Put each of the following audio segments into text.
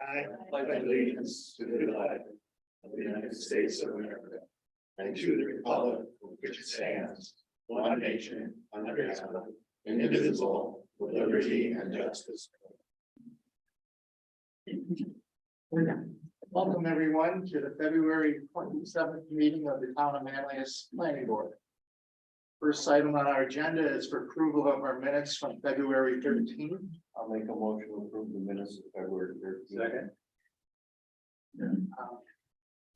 I pledge allegiance to the flag of the United States of America and to the republic for which it stands, one nation, under God, indivisible, with liberty and justice. Welcome, everyone, to the February twenty-seventh meeting of the Town of Manlius Planning Board. First item on our agenda is for approval of our minutes from February thirteenth. I'll make a motion to approve the minutes of February thirteenth. Second. Um,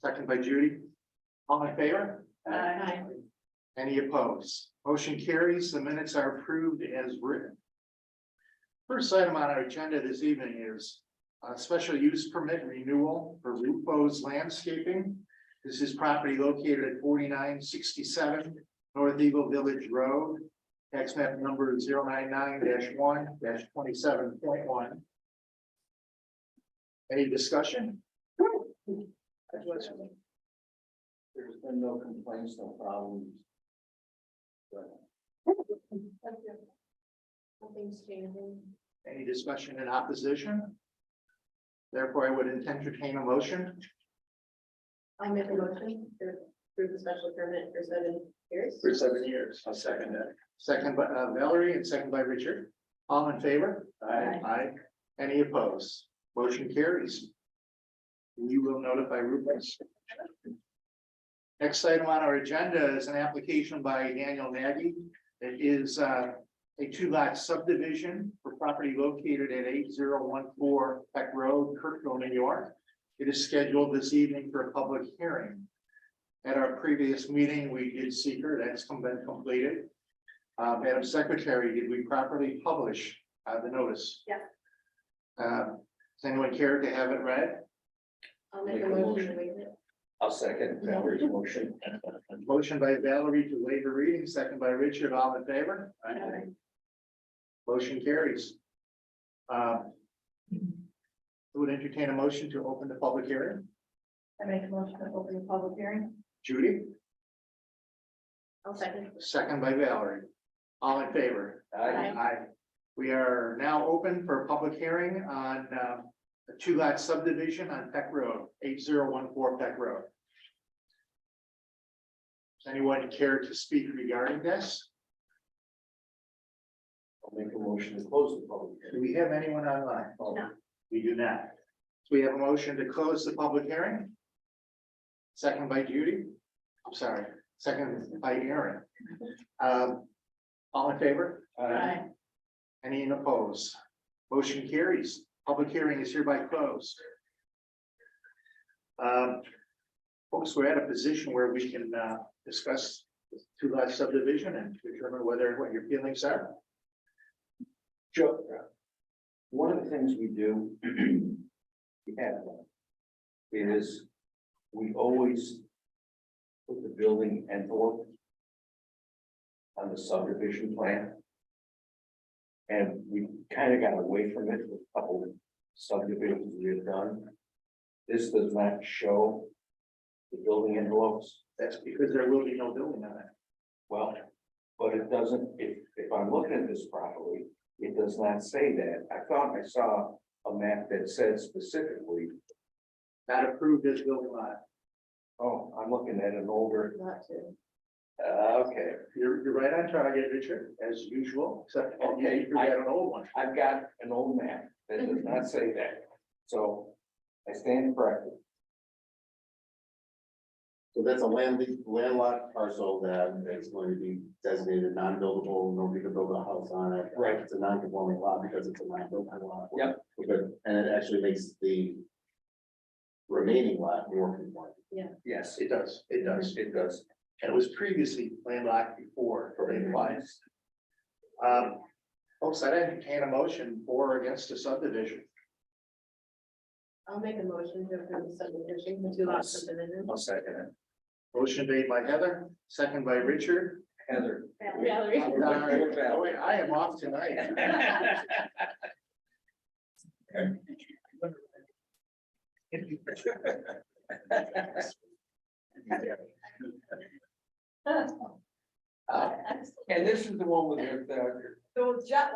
Second by Judy. All in favor? Aye. Any opposed? Motion carries. The minutes are approved as written. First item on our agenda this evening is a special use permit renewal for Lupo's Landscaping. This is property located at forty-nine sixty-seven North Eagle Village Road. Tax map number 099 one twenty-seven point one. Any discussion? There's been no complaints, no problems. Nothing's changing. Any discussion in opposition? Therefore, I would entertain a motion. I make a motion to approve the special permit for seven years. seven years. I'll second that. Second by uh, Valerie and second by Richard. All in favor? Aye. Aye. Any opposed? Motion carries. We will notify Rubens. Next item on our agenda is an application by Daniel Nagy. It is uh, a two lot subdivision for property located at eight zero one four Peck Road, Kirkville, New York. It is scheduled this evening for a public hearing. At our previous meeting, we did seeker, that's come- been completed. Uh, Madam Secretary, did we properly publish uh, the notice? Yeah. Uh, does anyone care to have it read? I'll make Make a a motion to motion. waive it. I'll second Valerie's motion. Motion by Valerie to waive the reading, second by Richard, all in favor? Motion carries. Uh, Would entertain a motion to open the public hearing. I make a motion to open the public hearing. Judy, I'll second. second by Valerie. All in favor? Aye. Aye. We are now open for a public hearing on uh, a two lot subdivision on Peck Road, eight zero one four Peck Road. Does anyone care to speak regarding this? I'll make a motion to close the public Do we have anyone online? Oh, hearing. We do not. So we have a motion to close the public hearing. Second by Judy. I'm sorry, second by Aaron. Um, All in favor? Aye. Aye. Any opposed? Motion carries. Public hearing is hereby closed. Um, Folks, we're at a position where we can uh, discuss this two lot subdivision and determine whether, what your feelings are. Joe, uh, one of the things we do, we have one, is we always put the building envelope on the subdivision plan. And we kind of got away from it with a couple of subdivisions we have done. This does not show the building envelopes. That's because there will be no building on it. Well, but it doesn't, if, if I'm looking at this properly, it does not say that. I thought I saw a map that said specifically, Not approved as building lot. oh, I'm looking at an older, Not to. uh, okay. You're, you're right on target, Richard, as usual, except for you Okay, I- forgot an old one. I've got an old map that does not say that, so I stand corrected. So that's a land, landlocked parcel that is going to be designated non-buildable, nobody can build a house on it. Right. It's a non-conforming lot because it's a non-buildable lot. Yep. But, and it actually makes the remaining lot more conforming. Yes, It does, it does. It does. And it was previously landlocked before, for it applies. Um, folks, I entertain a motion for or against a subdivision. I'll make a motion to approve the subdivision, the two lot subdivision. I'll second Motion made by Heather, second by Richard. it. Heather. Valerie. Oh, wait, I am off tonight. So Uh, And this is the one with the, the Jeff,